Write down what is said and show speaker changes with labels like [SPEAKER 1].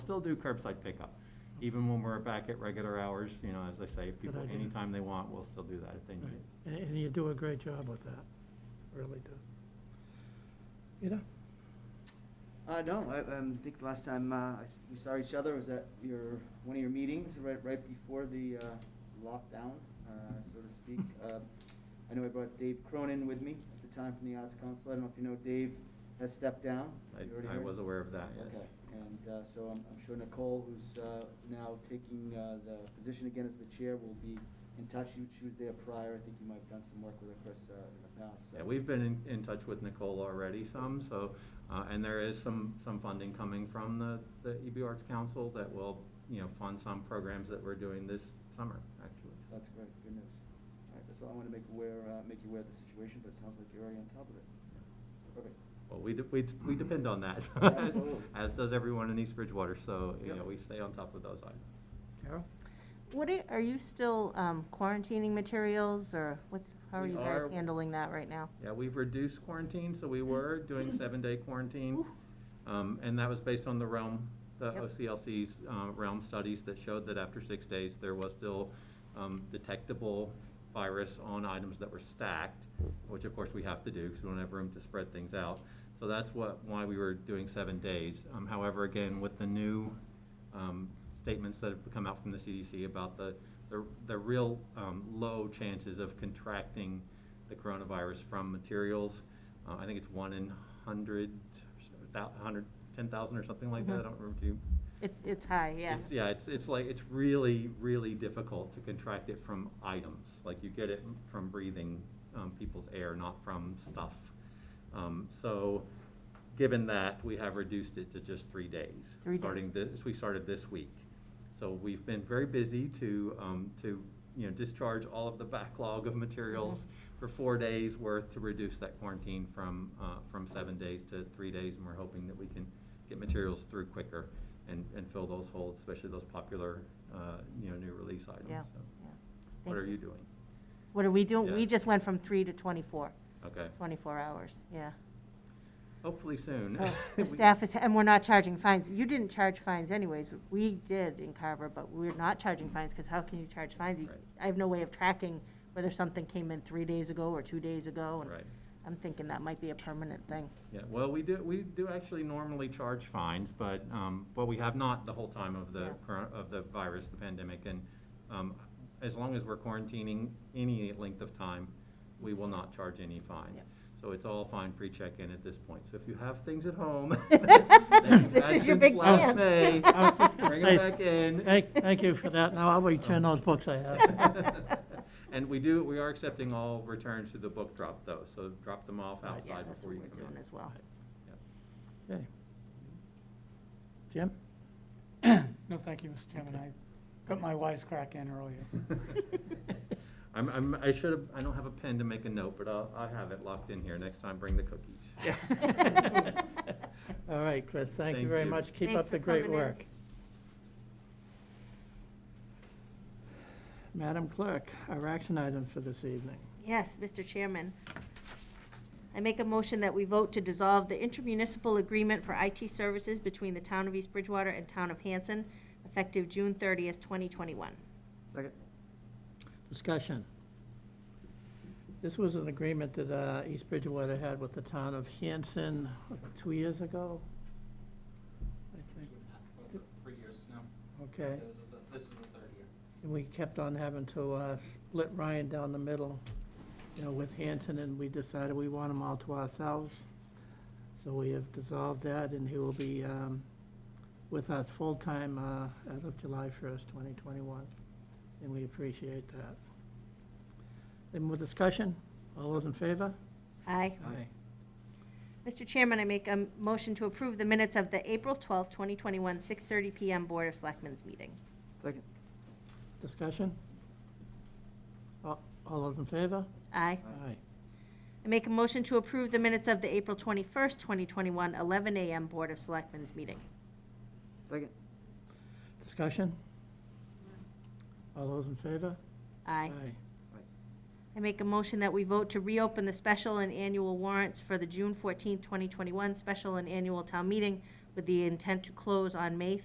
[SPEAKER 1] still do curbside pickup. Even when we're back at regular hours, you know, as I say, if
[SPEAKER 2] Good
[SPEAKER 1] people,
[SPEAKER 2] idea.
[SPEAKER 1] anytime they want, we'll still do that if they need
[SPEAKER 2] Right.
[SPEAKER 1] it.
[SPEAKER 2] And, and you do a great job with that, really do. You know,
[SPEAKER 3] Uh, no, I, um, think the last time, uh, I s- we saw each other was at your, one of your meetings, right, right before the, uh, lockdown, uh, so to speak.
[SPEAKER 1] Hmm.
[SPEAKER 3] Uh, I know I brought Dave Cronin with me at the time from the Arts Council. I don't know if you know, Dave has stepped down. Have you already
[SPEAKER 1] I, I
[SPEAKER 3] heard?
[SPEAKER 1] was aware of that, yes.
[SPEAKER 3] Okay, and, uh, so I'm, I'm sure Nicole, who's, uh, now taking, uh, the position again as the chair, will be in touch. She, she was there prior. I think you might have done some work with her, Chris, uh, in the past, so.
[SPEAKER 1] Yeah, we've been in, in touch with Nicole already some, so, uh, and there is some, some funding coming from the, the EB Arts Council that will, you know, fund some programs that we're doing this summer, actually.
[SPEAKER 3] So That's great, good news. All right, that's all I want to make aware, uh, make you aware of the situation, but it sounds like you're already on top of it. Perfect.
[SPEAKER 1] Well, we, de- we,
[SPEAKER 2] Mm-hmm.
[SPEAKER 1] we depend on that.
[SPEAKER 3] Absolutely.
[SPEAKER 1] As does everyone in East Bridgewater, so, you
[SPEAKER 3] Yep.
[SPEAKER 1] know, we stay on top of those items.
[SPEAKER 2] Carol?
[SPEAKER 4] What, i- are you still um, quarantining materials, or what's, how are
[SPEAKER 1] We
[SPEAKER 4] you guys
[SPEAKER 1] are.
[SPEAKER 4] handling that right now?
[SPEAKER 1] Yeah, we've reduced quarantine, so we were doing seven-day quarantine.
[SPEAKER 4] Oof.
[SPEAKER 1] Um, and that was based on the realm, the
[SPEAKER 4] Yep.
[SPEAKER 1] OCLC's, uh, realm studies that showed that after six days, there was still, um, detectable virus on items that were stacked, which of course we have to do, because we don't have room to spread things out. So that's what, why we were doing seven days. Um, however, again, with the new, um, statements that have come out from the CDC about the, the, the real, um, low chances of contracting the coronavirus from materials. Uh, I think it's one in hundred, thou- hundred, ten thousand or something like that. I
[SPEAKER 4] Mhm.
[SPEAKER 1] don't remember too.
[SPEAKER 4] It's, it's high, yeah.
[SPEAKER 1] It's, yeah, it's, it's like, it's really, really difficult to contract it from items. Like you get it from breathing, um, people's air, not from stuff. Um, so, given that, we have reduced it to just three days.
[SPEAKER 4] Three days.
[SPEAKER 1] Starting this, we started this week. So we've been very busy to, um, to, you know, discharge all of the backlog of materials
[SPEAKER 4] Mm-hmm.
[SPEAKER 1] for four days worth to reduce that quarantine from, uh, from seven days to three days. And we're hoping that we can get materials through quicker and, and fill those holes, especially those popular, uh, you know, new release items.
[SPEAKER 4] Yeah,
[SPEAKER 1] So
[SPEAKER 4] yeah.
[SPEAKER 1] What
[SPEAKER 4] Thank
[SPEAKER 1] are you doing?
[SPEAKER 4] What are we doing?
[SPEAKER 1] Yeah.
[SPEAKER 4] We just went from three to 24,
[SPEAKER 1] Okay,
[SPEAKER 4] 24 hours, yeah.
[SPEAKER 1] hopefully soon.
[SPEAKER 4] So
[SPEAKER 1] We-
[SPEAKER 4] the staff is, and we're not charging fines. You didn't charge fines anyways. We did in Carver, but we're not charging fines, because how can you charge fines? You-
[SPEAKER 1] Right.
[SPEAKER 4] I have no way of tracking whether something came in three days ago or two days ago, and
[SPEAKER 1] Right.
[SPEAKER 4] I'm thinking that might be a permanent thing.
[SPEAKER 1] Yeah, well, we do, we do actually normally charge fines, but, um, but we have not the whole time of the
[SPEAKER 4] Yeah.
[SPEAKER 1] current, of the virus, the pandemic, and, um, as long as we're quarantining any length of time, we will not charge any fines.
[SPEAKER 4] Yep.
[SPEAKER 1] So it's all fine free check-in at this point. So if you have things at home. that you've
[SPEAKER 4] This is your
[SPEAKER 1] actioned
[SPEAKER 4] big
[SPEAKER 1] last
[SPEAKER 4] chance.
[SPEAKER 1] May,
[SPEAKER 2] I was just gonna
[SPEAKER 1] Bring
[SPEAKER 2] say,
[SPEAKER 1] them back in.
[SPEAKER 2] Thank, thank you for that. Now I'll return those books I have.
[SPEAKER 1] And we do, we are accepting all returns to the book drop though, so drop them off
[SPEAKER 4] But Oh, yeah,
[SPEAKER 1] outside
[SPEAKER 4] that's
[SPEAKER 1] before
[SPEAKER 4] what
[SPEAKER 1] you
[SPEAKER 4] we're
[SPEAKER 1] come
[SPEAKER 4] doing
[SPEAKER 1] in.
[SPEAKER 4] as well.
[SPEAKER 2] Okay. Jim?
[SPEAKER 5] No, thank you, Mr. Chairman. I got my wisecrack in earlier.
[SPEAKER 1] I'm, I'm, I should have, I don't have a pen to make a note, but I'll, I have it locked in here. Next time, bring the cookies.
[SPEAKER 2] All right, Chris, thank you
[SPEAKER 1] Thank
[SPEAKER 2] very
[SPEAKER 1] you.
[SPEAKER 2] much. Keep up
[SPEAKER 4] Thanks
[SPEAKER 2] the
[SPEAKER 4] for
[SPEAKER 2] great
[SPEAKER 4] coming in.
[SPEAKER 2] work. Madam Clerk, our action item for this evening.
[SPEAKER 4] Yes, Mr. Chairman. I make a motion that we vote to dissolve the intermunicipal agreement for IT services between the Town of East Bridgewater and Town of Hanson, effective June 30th, 2021.
[SPEAKER 3] Second?
[SPEAKER 2] Discussion. This was an agreement that uh, East Bridgewater had with the town of Hanson what, two years ago? I think.
[SPEAKER 6] Three years now.
[SPEAKER 2] Okay,
[SPEAKER 6] This is the- This is the third year.
[SPEAKER 2] and we kept on having to uh, split Ryan down the middle, you know, with Hanson, and we decided we want them all to ourselves. So we have dissolved that, and he will be um, with us full-time uh, as of July 1st, 2021, and we appreciate that. Any more discussion? All those in favor?
[SPEAKER 4] Aye.
[SPEAKER 2] Aye.
[SPEAKER 4] Mr. Chairman, I make a motion to approve the minutes of the April 12th, 2021, 6:30 PM Board of Selectmen's meeting.
[SPEAKER 3] Second?
[SPEAKER 2] Discussion? All all those in favor?
[SPEAKER 4] Aye.
[SPEAKER 2] Aye.
[SPEAKER 4] I make a motion to approve the minutes of the April 21st, 2021, 11 AM Board of Selectmen's meeting.
[SPEAKER 3] Second?
[SPEAKER 2] Discussion? All those in favor?
[SPEAKER 4] Aye. I make a motion that we vote to reopen the special and annual warrants for the June fourteenth, twenty twenty-one special and annual town meeting with the intent to close on May